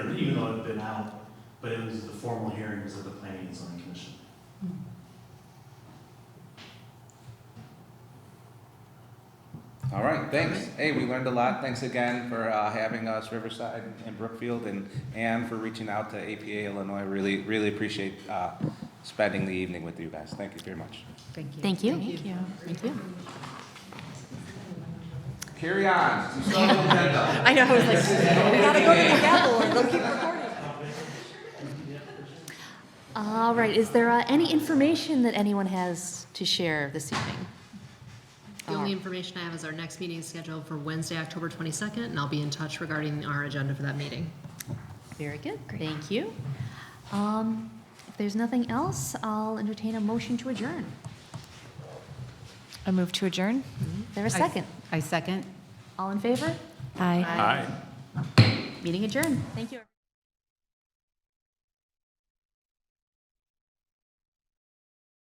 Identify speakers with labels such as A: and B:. A: been out, but it was the formal hearings of the planning and zoning commission.
B: All right, thanks. Hey, we learned a lot. Thanks again for uh, having us, Riverside and Brookfield, and Anne for reaching out to APA Illinois. Really, really appreciate uh, spending the evening with you guys. Thank you very much.
C: Thank you.
D: Thank you. Thank you. Thank you.
B: Carry on. You saw the agenda.
C: I know, I was like, we gotta go to the gavel or they'll keep recording.
D: All right, is there uh, any information that anyone has to share this evening?
E: The only information I have is our next meeting is scheduled for Wednesday, October 22nd, and I'll be in touch regarding our agenda for that meeting.
D: Very good, thank you. Um, If there's nothing else, I'll entertain a motion to adjourn.
F: A move to adjourn?
D: Is Mm-hmm. there a second?
C: I second.
D: All in favor?
F: Aye.
D: Meeting adjourned. Thank you.